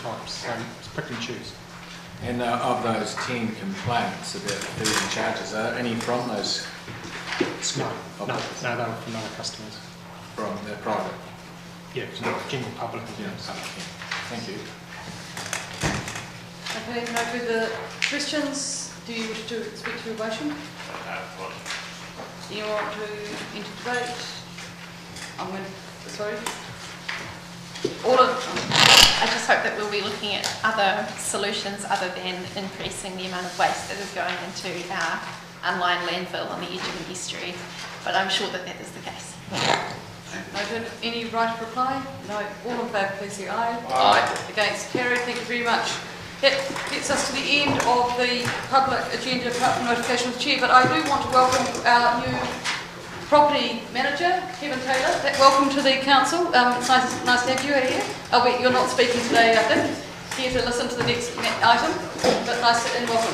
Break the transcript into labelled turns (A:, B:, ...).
A: so it's pick and choose.
B: And uh, of those 10 complaints about fees and charges, are any from those,
A: It's no, no, no, they were from other customers.
B: from the private?
A: Yeah, it's not general public,
B: you know,
A: yeah.
B: public? Thank you.
C: Okay, no further questions. Do you wish to speak to a motion? Do you want to enter debate? I'm going, to sorry?
D: all of, I just hope that we'll be looking at other solutions other than increasing the amount of waste that is going into our unlined landfill on the edge of an estuary, but I'm sure that that is the case.
C: No, don't- any right of reply? No, all in favour, please say aye. Aye. Against, carried, thank you very much. That gets us to the end of the public agenda, apart from notification of the chair, but I do want to welcome our new property manager, Kevin Taylor. That- Welcome to the council, Um, it's nice, nice to have you here. Oh wait, you're not speaking today, I think, here to listen to the next ma- item, but nice and welcome.